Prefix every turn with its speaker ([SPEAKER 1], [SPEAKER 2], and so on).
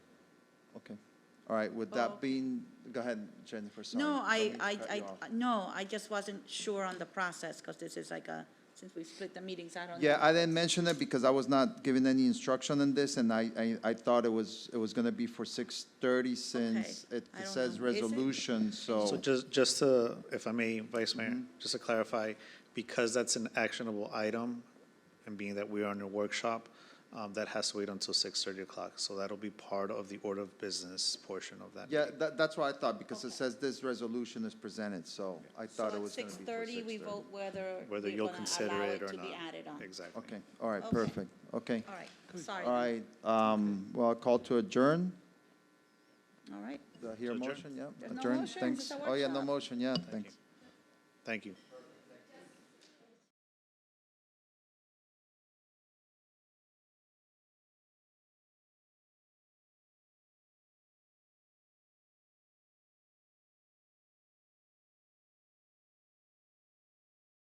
[SPEAKER 1] Okay. All right, with
[SPEAKER 2] Oh.
[SPEAKER 1] that being, go ahead, Jennifer, sorry.
[SPEAKER 2] No,
[SPEAKER 1] Don't
[SPEAKER 2] I,
[SPEAKER 1] mean to
[SPEAKER 2] I,
[SPEAKER 1] cut
[SPEAKER 2] I,
[SPEAKER 1] you off.
[SPEAKER 2] no, I just wasn't sure on the process, because this is like a, since we split the meetings, I don't know.
[SPEAKER 1] Yeah, I didn't mention it because I was not given any instruction on this, and I, I, I thought it was, it was gonna be for six thirty since it
[SPEAKER 2] I don't
[SPEAKER 1] says
[SPEAKER 2] know. Is it?
[SPEAKER 1] resolution,
[SPEAKER 3] So
[SPEAKER 1] so. Mm-hmm.
[SPEAKER 3] just, just to, if I may, Vice Mayor, just to clarify, because that's an actionable item, and being that we are in a workshop, um, that has to wait until six thirty o'clock, so that'll be part of the order of business portion of that.
[SPEAKER 1] Yeah,
[SPEAKER 3] meeting.
[SPEAKER 1] that, that's what I thought, because it
[SPEAKER 2] Okay.
[SPEAKER 1] says this resolution is presented, so I thought it was gonna be for six thirty.
[SPEAKER 2] So at 6:30, we vote whether
[SPEAKER 3] Whether
[SPEAKER 2] we're
[SPEAKER 3] you'll
[SPEAKER 2] going to
[SPEAKER 3] consider
[SPEAKER 2] allow
[SPEAKER 3] it
[SPEAKER 2] it
[SPEAKER 3] or
[SPEAKER 2] to be
[SPEAKER 3] not.
[SPEAKER 2] added on.
[SPEAKER 3] Exactly.
[SPEAKER 1] Okay, all right,
[SPEAKER 2] Okay.
[SPEAKER 1] perfect, okay.
[SPEAKER 2] All right, sorry.
[SPEAKER 1] All right, um, well, I'll call to adjourn,
[SPEAKER 2] All right.
[SPEAKER 1] do I hear a
[SPEAKER 3] To adjourn?
[SPEAKER 1] motion, yeah?
[SPEAKER 2] There's no
[SPEAKER 1] Adjourn.
[SPEAKER 2] motions,
[SPEAKER 1] Thanks.
[SPEAKER 2] it's a
[SPEAKER 1] Oh, yeah, no
[SPEAKER 2] workshop.
[SPEAKER 1] motion, yeah, thanks.
[SPEAKER 3] Thank you.